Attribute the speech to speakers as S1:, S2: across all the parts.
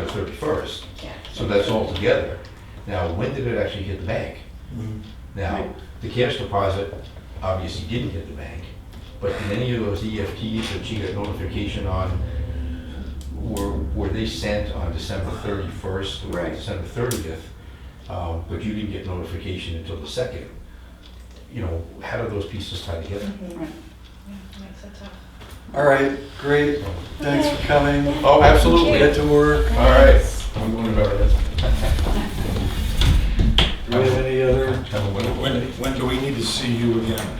S1: March thirty-first,
S2: Yeah.
S1: so that's all together. Now, when did it actually hit the bank? Now, the cash deposit obviously didn't hit the bank, but did any of those EFTs that she got notification on, were, were they sent on December thirty-first or
S2: Right.
S1: December thirtieth? Um, but you didn't get notification until the second. You know, how do those pieces tie together?
S2: Makes it tough.
S3: All right, great. Thanks for coming.
S1: Oh, absolutely.
S3: Get to work.
S1: All right, I'm going to Meredith.
S3: Do we have any other?
S1: Have a wonderful
S4: When,
S1: day.
S4: when do we need to see you again?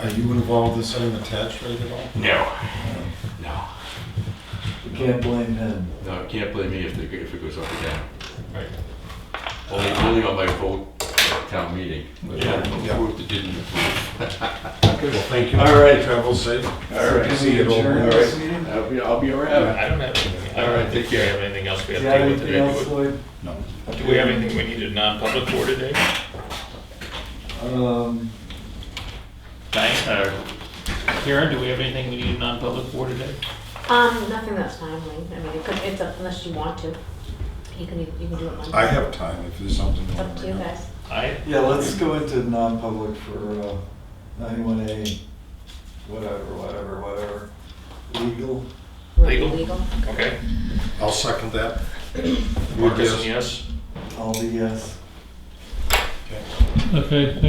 S4: Are you involved in setting the tax rate at all?
S1: No, no,
S3: We can't blame him.
S5: No, can't blame me if it, if it goes up or down.
S4: Right.
S5: Only, only on my vote at town meeting, but
S4: Yeah, yeah.
S5: approved it didn't approve.
S4: Okay, well, thank you.
S1: All right.
S4: Travel safe.
S3: All right.
S4: See you all.
S3: Adjourn
S4: All
S3: this
S4: right.
S3: meeting?
S5: I'll be, I'll be around.
S6: I don't have anything.
S5: All right, take care.
S6: Do we have anything else we
S3: Do
S6: have
S3: you
S6: to
S3: have
S6: deal with
S3: anything
S6: today?
S3: else,
S6: Do
S3: Lloyd?
S4: No.
S6: we- Do we have anything we needed non-public for today?
S3: Um,
S6: Diane, or
S5: uh,
S6: Karen, do we have anything we needed non-public for today?
S7: Um, nothing that's timely. I mean, it could, it's up unless you want to. You can, you can do it Monday.
S4: I have time if there's something.
S7: It's
S4: want
S7: up to
S4: bring
S7: you
S4: up.
S7: guys.
S6: I,
S3: Yeah, let's go into non-public for uh, ninety-one A, whatever, whatever, whatever. Legal.
S6: Legal?
S7: Legal.
S6: okay.
S4: I'll second that.
S6: Marcus, yes?
S3: I'll be yes.
S4: Okay.
S8: Okay, thank